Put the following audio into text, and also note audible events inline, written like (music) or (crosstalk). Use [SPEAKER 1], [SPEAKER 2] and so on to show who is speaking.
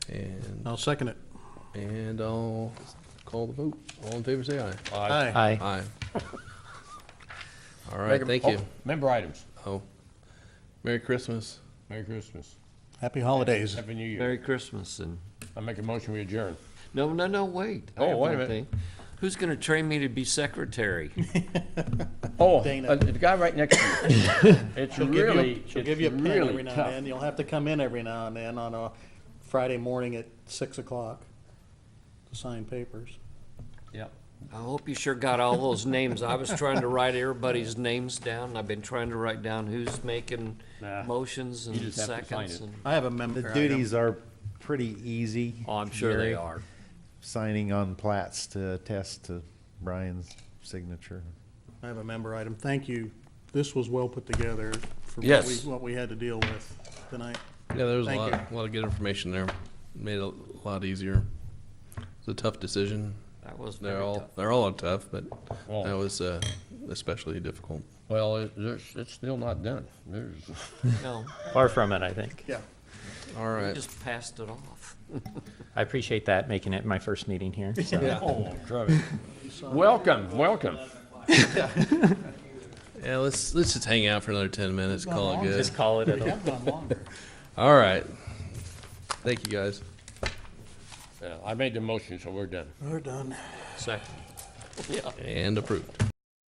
[SPEAKER 1] I'll second it.
[SPEAKER 2] And I'll call the vote. All in favor, say aye.
[SPEAKER 1] Aye.
[SPEAKER 3] Aye.
[SPEAKER 2] Aye. All right, thank you.
[SPEAKER 4] Member items.
[SPEAKER 2] Oh, Merry Christmas.
[SPEAKER 4] Merry Christmas.
[SPEAKER 1] Happy holidays.
[SPEAKER 4] Happy New Year.
[SPEAKER 5] Merry Christmas and,
[SPEAKER 4] I make a motion we adjourn.
[SPEAKER 5] no, no, no, wait. I
[SPEAKER 4] Oh,
[SPEAKER 5] have
[SPEAKER 4] wait a
[SPEAKER 5] one
[SPEAKER 4] minute.
[SPEAKER 5] thing. Who's gonna train me to be secretary?
[SPEAKER 4] Oh,
[SPEAKER 1] Dana.
[SPEAKER 4] uh, the guy right next to you. (laughs) It's
[SPEAKER 1] She'll give you,
[SPEAKER 4] really,
[SPEAKER 1] she'll give you a
[SPEAKER 4] it's
[SPEAKER 1] pen every
[SPEAKER 4] really
[SPEAKER 1] now and
[SPEAKER 4] tough.
[SPEAKER 1] then. You'll have to come in every now and then on a Friday morning at six o'clock to sign papers.
[SPEAKER 4] Yeah.
[SPEAKER 5] I hope you sure got all those names. I was trying to write everybody's names down. I've been trying to write down who's making
[SPEAKER 4] Nah.
[SPEAKER 5] motions
[SPEAKER 4] You
[SPEAKER 5] and
[SPEAKER 4] just have to find
[SPEAKER 5] seconds.
[SPEAKER 4] it.
[SPEAKER 5] and-
[SPEAKER 1] I have a
[SPEAKER 6] The
[SPEAKER 1] member item.
[SPEAKER 6] duties are pretty easy.
[SPEAKER 5] Oh, I'm sure they
[SPEAKER 6] Gary.
[SPEAKER 5] are.
[SPEAKER 6] Signing on plats to attest to Brian's signature.
[SPEAKER 1] I have a member item. Thank you. This was well put together for what we,
[SPEAKER 2] Yes.
[SPEAKER 1] what we had to deal with tonight.
[SPEAKER 2] Yeah, there was a
[SPEAKER 1] Thank
[SPEAKER 2] lot, a
[SPEAKER 1] you.
[SPEAKER 2] lot of good information there. Made it a lot easier. It's a tough decision.
[SPEAKER 5] That was very
[SPEAKER 2] They're all,
[SPEAKER 5] tough.
[SPEAKER 2] they're all tough, but
[SPEAKER 4] Oh.
[SPEAKER 2] that was uh, especially difficult.
[SPEAKER 4] Well, it, there's, it's still not done. (laughs) There's.
[SPEAKER 5] (laughs) No,
[SPEAKER 3] Far from it, I think.
[SPEAKER 1] Yeah.
[SPEAKER 2] All right.
[SPEAKER 5] just passed it off.
[SPEAKER 3] I appreciate that, making it my first meeting here. so.
[SPEAKER 4] (laughs) Oh, Travis. Welcome, welcome.
[SPEAKER 2] Yeah, let's let's just hang out for another ten minutes. Call it good.
[SPEAKER 3] Just call it a
[SPEAKER 1] I've gone longer.
[SPEAKER 2] All right. Thank you guys.
[SPEAKER 4] Yeah, I made the motion, so we're done.
[SPEAKER 1] We're done.
[SPEAKER 5] Second.
[SPEAKER 2] And approved.